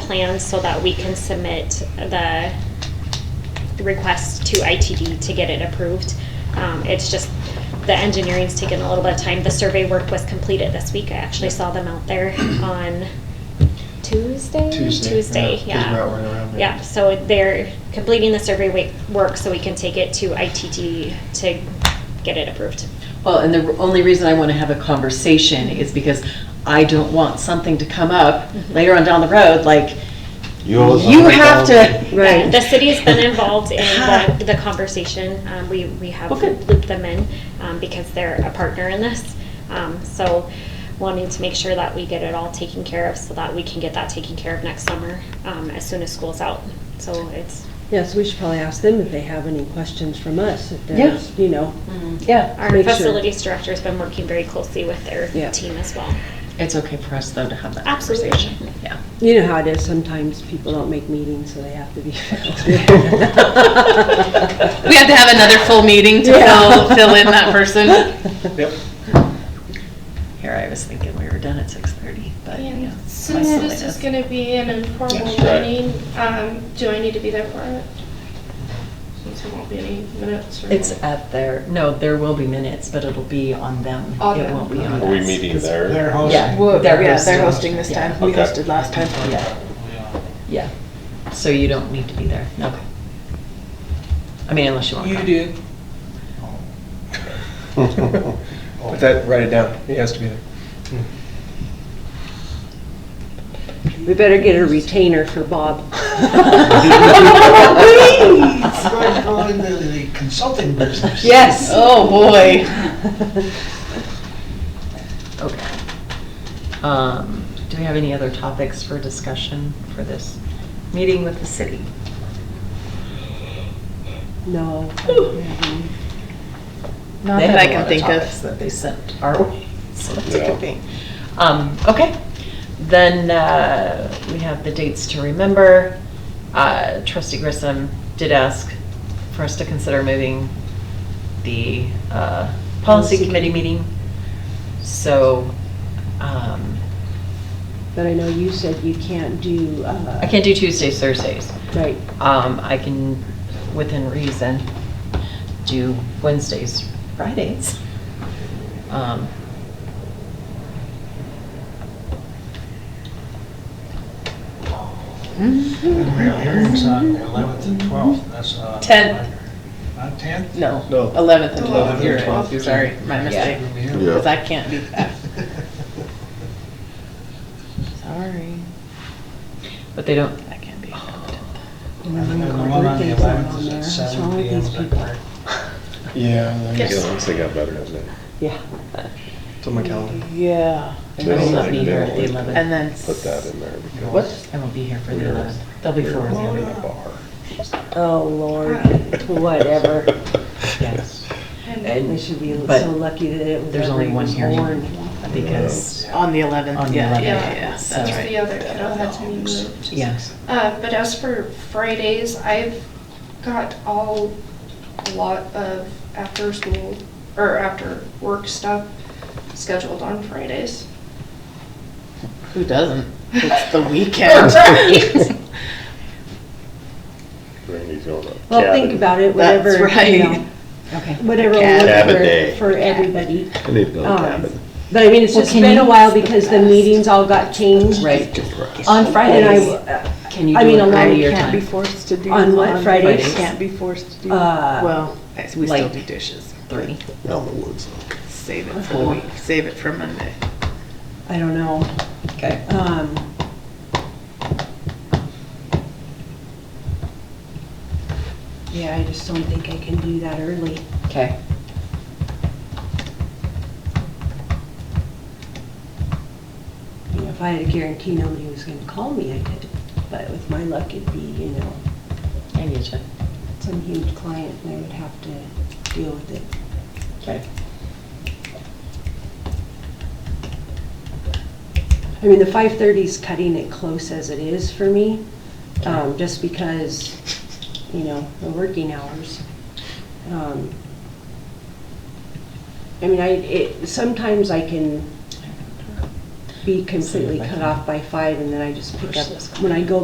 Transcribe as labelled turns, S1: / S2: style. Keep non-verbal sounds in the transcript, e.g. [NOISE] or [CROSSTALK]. S1: plans so that we can submit the the request to ITD to get it approved. Um, It's just, the engineering's taken a little bit of time. The survey work was completed this week. I actually saw them out there on Tuesday?
S2: Tuesday, yeah, 'cause
S1: yeah.
S2: we're out running around, yeah.
S1: Yeah, so they're completing the survey wa- work so we can take it to ITD to get it approved.
S3: Well, and the only reason I want to have a conversation is because I don't want something to come up
S1: Mhm.
S3: later on down the road, like,
S4: You owe us
S3: you have to.
S4: $100,000.
S1: Yeah, The city's been involved in
S5: Ah.
S1: the, the conversation. Um, we, we have
S3: Well, good.
S1: looped them in, um, because they're a partner in this. Um, so wanting to make sure that we get it all taken care of so that we can get that taken care of next summer, um, as soon as school's out. So it's,
S5: Yes, we should probably ask them if they have any questions from us, if
S3: Yeah.
S5: there's, you know.
S3: Yeah,
S1: Mm-hmm. our
S5: Make sure.
S1: facilities director's been working very closely with their
S5: Yeah.
S1: team as well.
S3: it's okay for us though to have that
S1: Absolutely.
S3: conversation. [LAUGHS] Yeah.
S5: You know how it is, sometimes people don't make meetings, so they have
S3: [LAUGHS]
S5: to be.
S3: We have to have another full meeting to
S5: Yeah.
S3: fill, fill in that person.
S2: Yep.
S3: Here, I was thinking we were done at six thirty, but you know.
S6: And
S3: my
S6: Since this is
S3: silliness.
S6: gonna be an informal
S2: That's right.
S6: meeting, um, do I need to be there for it? Since there won't be any minutes or?
S3: It's at their, no, there will be minutes, but it'll be on them.
S6: On
S3: It
S6: them.
S3: won't be on us.
S4: Are we meeting
S2: They're
S4: there?
S2: hosting.
S3: Yeah.
S7: Well,
S3: They're
S7: yeah, they're
S3: hosting.
S7: hosting this
S3: Yeah.
S7: time. We
S4: Okay.
S7: hosted last time.
S8: Oh,
S3: Yeah. Yeah, so you don't need to be there, okay. I mean, unless you want to.
S7: You do.
S2: Put that, write it down. It has to be there.
S5: We better get a retainer for Bob.
S7: Please.
S8: We're going into the consulting business.
S7: Yes.
S3: [LAUGHS] Oh, boy. Okay. Um, Do we have any other topics for discussion for this meeting with the city?
S5: [LAUGHS]
S3: [LAUGHS]
S5: No. Mm-hmm.
S7: Not
S3: They
S7: that
S3: have
S7: I
S3: a lot
S7: can think
S3: topics
S7: of.
S3: That they sent our way, so that's a
S4: Yeah.
S3: good thing. Um, okay, then, uh, we have the dates to remember. Uh, trustee Grissom did ask for us to consider moving the, uh, policy
S5: Policy
S3: committee
S5: committee.
S3: meeting. So, um,
S5: But I know you said you can't do. uh,
S3: I can't do Tuesdays, Thursdays.
S5: Right,
S3: Um, I can, within reason, do Wednesdays, Fridays. Um,
S8: And we have hearings on the eleventh and twelfth, that's uh
S7: Tenth.
S8: Not tenth?
S7: No,
S2: No.
S7: 11th and
S8: 11th
S7: 12th,
S8: and
S7: you're
S2: 12th,
S7: right.
S2: you're
S7: Oh, Sorry,
S2: right.
S7: my mistake.
S4: Yeah.
S7: Because I can't do that. Sorry,
S3: but they don't,
S7: that can't be.
S8: And then the one on the
S5: Birthdays aren't
S8: eleventh
S5: on
S8: is
S5: there.
S8: at
S5: What's
S8: seven
S5: wrong with
S8: P M,
S5: these
S8: is that
S5: people?
S8: correct?
S2: [LAUGHS] Yeah. let me
S6: Yes.
S2: go.
S4: Yeah, once they got better, isn't it?
S5: yeah.
S2: It's on my calendar.
S7: Yeah.
S3: I
S4: They
S3: will
S4: don't
S3: not
S4: like-
S3: be
S4: they
S3: here
S4: don't
S3: at the
S4: like
S3: eleventh.
S7: And then.
S4: Put that in there because.
S7: What?
S3: I won't be here for the
S4: We're-
S3: eleventh. They'll be
S4: we're
S3: for the
S4: running
S3: eleventh.
S4: a bar.
S5: Oh, Lord,
S3: [LAUGHS]
S4: [LAUGHS]
S5: whatever.
S3: Yes.
S6: And
S5: They
S3: And
S5: should be
S3: But
S5: so lucky that it was
S3: there's only
S5: ever
S3: one
S5: was
S3: hearing.
S5: born.
S3: because,
S7: On the 11th.
S3: On the
S7: yeah,
S3: 11th,
S7: Yeah, yeah, yeah, that's
S3: so-
S6: just the
S7: right.
S6: other kiddo had to be moved.
S3: yeah,
S6: Uh, but as for Fridays, I've got all, a lot of after school, or after work stuff scheduled on Fridays.
S7: Who doesn't? It's [LAUGHS] the weekend.
S4: Randy's going up.
S5: Well, think about it,
S7: That's
S5: whatever, you
S7: right.
S5: know,
S3: okay.
S5: whatever will
S7: Cab-
S4: Cab a
S5: work
S4: day.
S5: for, for everybody.
S4: I need another
S5: Um,
S4: cabin.
S5: But I mean, it's just
S3: can
S5: been a
S3: you-
S5: while because the meetings all got changed. uh,
S3: Right.
S4: Compressed.
S3: On
S5: And
S3: Fridays,
S5: I,
S3: can you
S5: I
S3: do
S5: mean,
S3: it
S5: a lot
S3: earlier
S5: of
S7: Can't be
S3: time?
S7: forced to do.
S5: On what, Fridays?
S7: Can't be forced to do.
S5: Uh,
S7: Well, we still
S3: like-
S7: do dishes.
S3: Three.
S4: Out in the woods.
S7: Save it for the week, save it for Monday.
S5: I don't know,
S3: Okay.
S5: um, yeah, I just don't think I can do that early.
S3: Okay.
S5: You know, if I had a guarantee nobody was gonna call me, I could, but with my luck, it'd be, you know,
S3: I get you.
S5: some huge client and I would have to deal with it.
S3: Okay.
S5: I mean, the 5:30's cutting it close as it is for me, um, just because, you know, the working hours. Um, I mean, I, it, sometimes I can be completely cut off by five, and then I just pick up, when I go